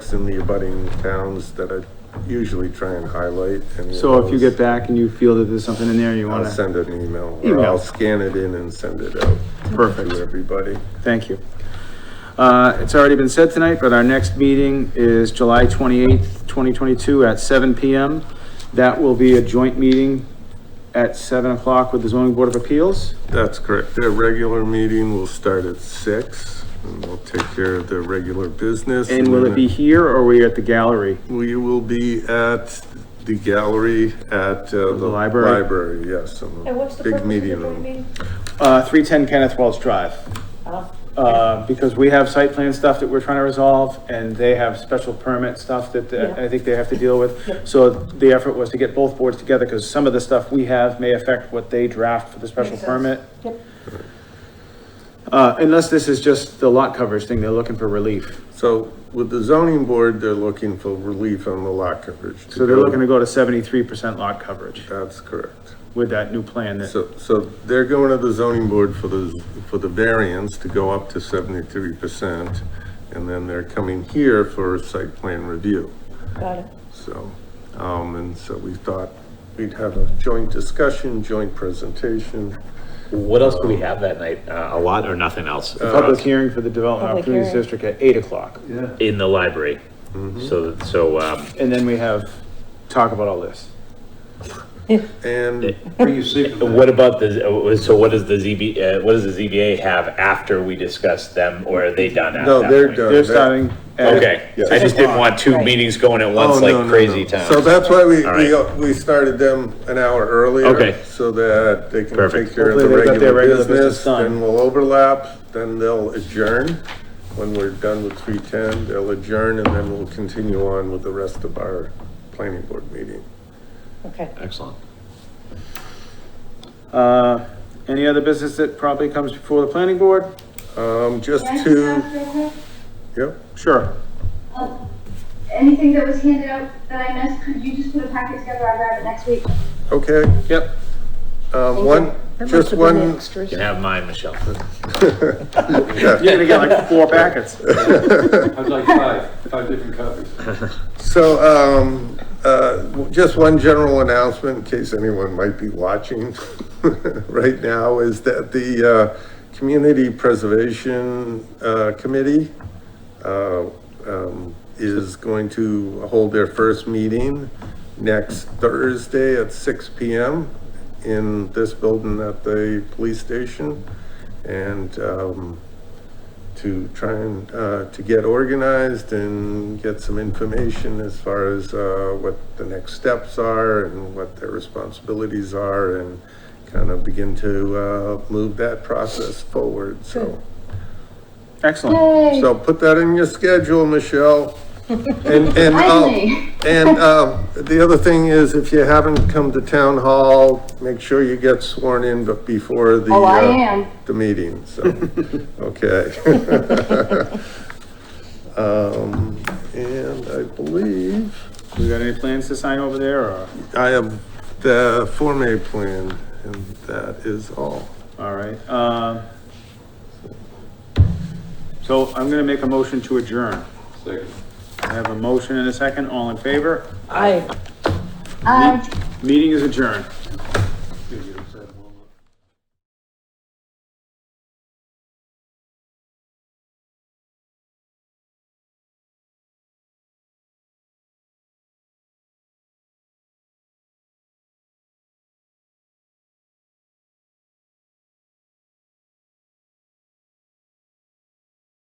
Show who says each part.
Speaker 1: that's in the abutting towns that I usually try and highlight. and
Speaker 2: So if you get
Speaker 1: those-
Speaker 2: back and you feel that there's something in there you
Speaker 1: I'll
Speaker 2: want to,
Speaker 1: send an email, or
Speaker 2: Email.
Speaker 1: I'll scan it in and send it out
Speaker 2: perfect.
Speaker 1: to everybody.
Speaker 2: Thank you. Uh, It's already been said tonight, but our next meeting is July 28th, 2022 at seven PM. That will be a joint meeting at 7 o'clock with the zoning board of appeals.
Speaker 1: That's correct. The regular meeting will start at six, and we'll take care of the regular business.
Speaker 2: And will it
Speaker 1: then
Speaker 2: be here or are we at the gallery?
Speaker 1: We will be at the gallery at uh, the.
Speaker 2: library?
Speaker 1: Library, yes. on the
Speaker 3: And what's the
Speaker 1: Big
Speaker 3: purpose of the
Speaker 1: meeting
Speaker 3: joint
Speaker 1: room.
Speaker 3: meeting?
Speaker 2: Uh, 310 Kenneth Wells Drive.
Speaker 3: Oh,
Speaker 2: Uh, because we have site plan stuff that we're trying to resolve, and they have special permit stuff that uh,
Speaker 3: Yeah.
Speaker 2: I think they have to deal
Speaker 3: Yeah.
Speaker 2: with. So the effort was to get both boards together, because some of the stuff we have may affect what they draft for the special
Speaker 3: Makes sense.
Speaker 2: permit.
Speaker 3: Yep.
Speaker 2: Uh, unless this is just the lot coverage thing, they're looking for relief.
Speaker 1: So with the zoning board, they're looking for relief on the lot coverage. to
Speaker 2: So they're
Speaker 1: go-
Speaker 2: looking to go to seventy-three percent lot coverage
Speaker 1: That's correct.
Speaker 2: with that new plan that,
Speaker 1: So, so they're going to the zoning board for the, for the variance to go up to seventy-three percent. And then they're coming here for a site plan review.
Speaker 3: got it.
Speaker 1: So, um, and so we thought we'd have a joint discussion, joint presentation.
Speaker 4: What else do we have that night? Uh, a lot or nothing else
Speaker 2: public hearing for the development
Speaker 3: Public
Speaker 2: opportunities
Speaker 3: hearing.
Speaker 2: district at eight o'clock.
Speaker 4: in the library. So, so, um,
Speaker 2: And then we have, talk about all this.
Speaker 1: And
Speaker 4: what about the, uh, so what does the ZB, uh, what does the ZBA have after we discuss them or are they done after?
Speaker 1: No, they're done.
Speaker 2: They're starting at.
Speaker 4: Okay,
Speaker 1: Yeah.
Speaker 4: I just didn't want two
Speaker 3: Right.
Speaker 4: meetings going at
Speaker 1: Oh,
Speaker 4: once
Speaker 1: no, no,
Speaker 4: like
Speaker 1: no.
Speaker 4: crazy town.
Speaker 1: So that's why we,
Speaker 4: All
Speaker 1: we, we started them an hour earlier.
Speaker 4: Okay.
Speaker 1: So that they can
Speaker 4: Perfect.
Speaker 1: take care of the
Speaker 2: Hopefully they got their
Speaker 1: regular
Speaker 2: regular
Speaker 1: business,
Speaker 2: business done.
Speaker 1: then we'll overlap, then they'll adjourn. When we're done with three ten, they'll adjourn and then we'll continue on with the rest of our planning board meeting.
Speaker 3: Okay.
Speaker 4: Excellent.
Speaker 2: Uh, any other business that probably comes before the planning board?
Speaker 1: Um, just
Speaker 5: Can I just
Speaker 1: to,
Speaker 5: ask real quick?
Speaker 1: yep,
Speaker 2: Sure.
Speaker 5: Um, Anything that was handed out that I missed, could you just put a packet together? I'll grab it next week.
Speaker 1: okay.
Speaker 2: Yep.
Speaker 1: Um, one, just one,
Speaker 4: You can have mine, Michelle.
Speaker 2: You're gonna get like four packets.
Speaker 6: I'd like five, five different copies.
Speaker 1: So, um, uh, just one general announcement in case anyone might be watching right now is that the, uh, Community Preservation, uh, Committee, uh, um, is going to hold their first meeting next Thursday at six P M in this building at the police station. And, um, to try and, uh, to get organized and get some information as far as, uh, what the next steps are and what their responsibilities are and kind of begin to, uh, move that process forward, so.
Speaker 2: Excellent.
Speaker 1: So put that in your schedule, Michelle. And, and, um,
Speaker 5: Finally.
Speaker 1: and, um, the other thing is if you haven't come to town hall, make sure you get sworn in but before the.
Speaker 5: Oh, I
Speaker 1: uh,
Speaker 5: am.
Speaker 1: the meeting, so, okay. Um, and I believe
Speaker 2: We got any plans to sign over there or,
Speaker 1: I have the Form A plan, and that is all.
Speaker 2: all right, um. So I'm gonna make a motion to adjourn.
Speaker 6: Second.
Speaker 2: I have a motion and a second, all in favor?
Speaker 3: I.
Speaker 5: Um,
Speaker 2: Meeting is adjourned.
Speaker 6: Give you a second.